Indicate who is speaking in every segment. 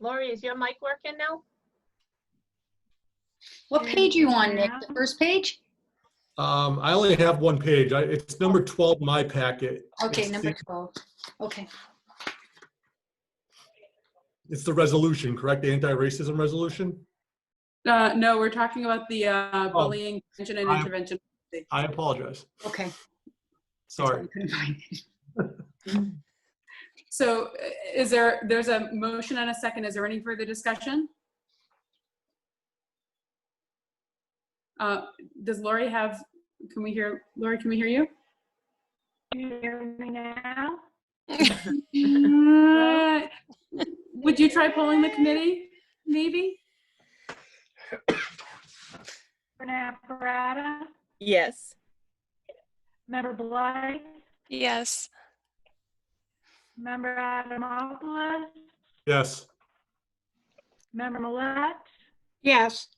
Speaker 1: Lori, is your mic working now?
Speaker 2: What page you on, Nick? The first page?
Speaker 3: Um, I only have one page. I, it's number 12 in my packet.
Speaker 2: Okay,
Speaker 3: It's
Speaker 2: number
Speaker 3: the-
Speaker 2: 12. Okay,
Speaker 3: It's the resolution, correct? The anti-racism resolution?
Speaker 4: Uh, no, we're talking about the uh, bullying prevention and
Speaker 3: I-
Speaker 4: intervention.
Speaker 3: I apologize.
Speaker 2: okay.
Speaker 3: Sorry.
Speaker 2: Couldn't find it.
Speaker 4: So uh, is there, there's a motion and a second. Is there any further discussion? Uh, does Lori have, can we hear, Lori, can we hear you?
Speaker 5: Can you hear me now?
Speaker 4: Uh, Would you try polling the committee, maybe?
Speaker 5: Member Naprata,
Speaker 6: Yes.
Speaker 5: Member Blythe,
Speaker 7: Yes.
Speaker 5: Member Adamopoulos,
Speaker 3: Yes.
Speaker 5: Member Millet,
Speaker 6: Yes.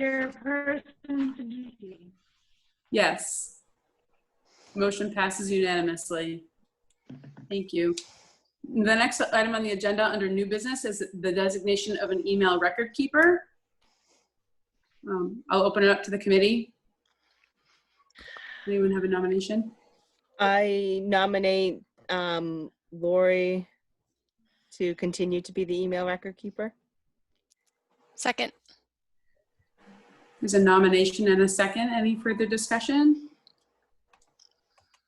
Speaker 5: Chairperson Siddiqui.
Speaker 4: Yes. Motion passes unanimously. Thank you. The next item on the agenda under new business is the designation of an email record keeper. Um, I'll open it up to the committee. Anyone have a nomination?
Speaker 6: I nominate um, Lori to continue to be the email record keeper.
Speaker 7: Second.
Speaker 4: There's a nomination and a second. Any further discussion?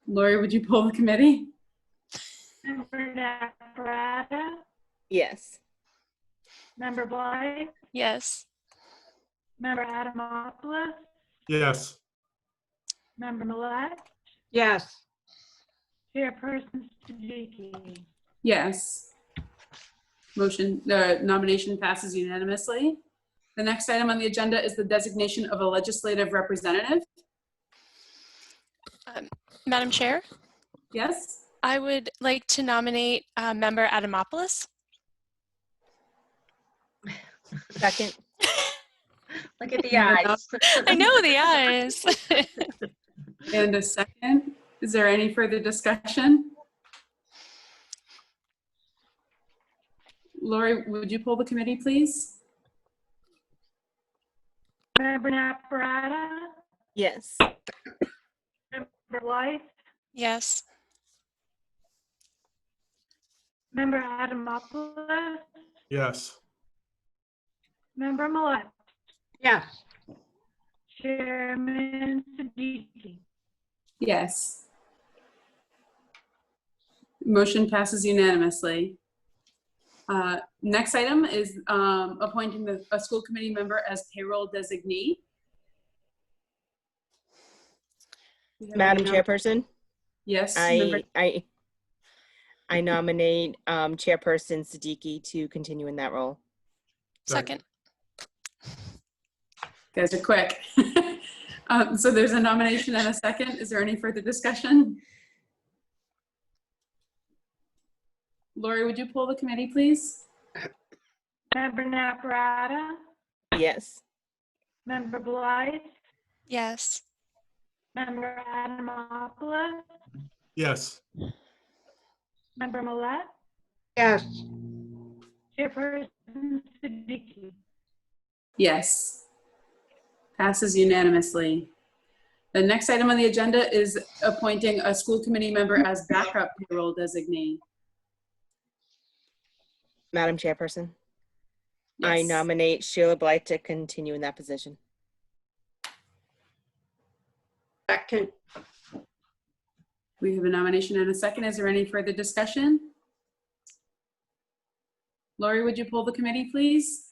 Speaker 4: Lori, would you poll the committee?
Speaker 5: Member Naprata,
Speaker 6: Yes.
Speaker 5: Member Blythe,
Speaker 7: Yes.
Speaker 5: Member Adamopoulos,
Speaker 3: Yes.
Speaker 5: Member Millet,
Speaker 6: Yes.
Speaker 5: Chairperson Siddiqui.
Speaker 4: Yes. Motion, the nomination passes unanimously. The next item on the agenda is the designation of a legislative representative.
Speaker 7: Madam Chair,
Speaker 4: Yes?
Speaker 7: I would like to nominate uh, Member Adamopoulos.
Speaker 6: Second.
Speaker 1: Look at the eyes.
Speaker 7: I know the eyes.
Speaker 4: And a second. Is there any further discussion? Lori, would you pull the committee, please?
Speaker 5: Member Naprata,
Speaker 6: Yes.
Speaker 5: Member Blythe,
Speaker 7: yes.
Speaker 5: Member Adamopoulos,
Speaker 3: Yes.
Speaker 5: Member Millet,
Speaker 1: Yes.
Speaker 5: Chairman Siddiqui.
Speaker 4: Yes. Motion passes unanimously. Uh, Next item is um, appointing the- a school committee member as payroll designee.
Speaker 6: Madam Chairperson,
Speaker 4: Yes. member-
Speaker 6: I, I, I nominate um, Chairperson Siddiqui to continue in that role.
Speaker 7: Second.
Speaker 4: Guys are quick. Um, So there's a nomination and a second. Is there any further discussion? Lori, would you pull the committee, please?
Speaker 5: Member Naprata,
Speaker 6: Yes.
Speaker 5: Member Blythe,
Speaker 7: Yes.
Speaker 5: Member Adamopoulos,
Speaker 3: Yes.
Speaker 5: Member Millet,
Speaker 1: Yes.
Speaker 5: Chairperson Siddiqui.
Speaker 4: Yes. Passes unanimously. The next item on the agenda is appointing a school committee member as backup payroll designee.
Speaker 6: Madam Chairperson, I
Speaker 4: Yes.
Speaker 6: nominate Sheila Blight to continue in that position.
Speaker 4: We have a nomination and a second. Is there any further discussion? Lori, would you pull the committee, please?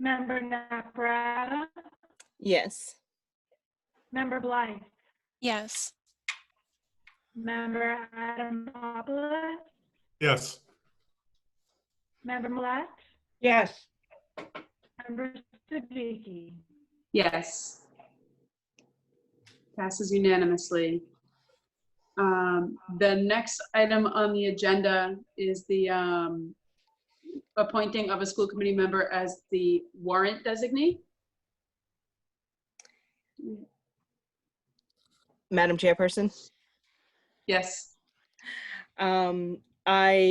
Speaker 5: Member Naprata,
Speaker 6: Yes.
Speaker 5: Member Blythe,
Speaker 7: Yes.
Speaker 5: Member Adamopoulos,
Speaker 3: Yes.
Speaker 5: Member Millet,
Speaker 1: Yes.
Speaker 5: Member Siddiqui.
Speaker 4: Yes. Passes unanimously. Um, The next item on the agenda is the um, appointing of a school committee member as the warrant designee.
Speaker 6: Madam Chairperson,
Speaker 4: Yes.
Speaker 6: um, I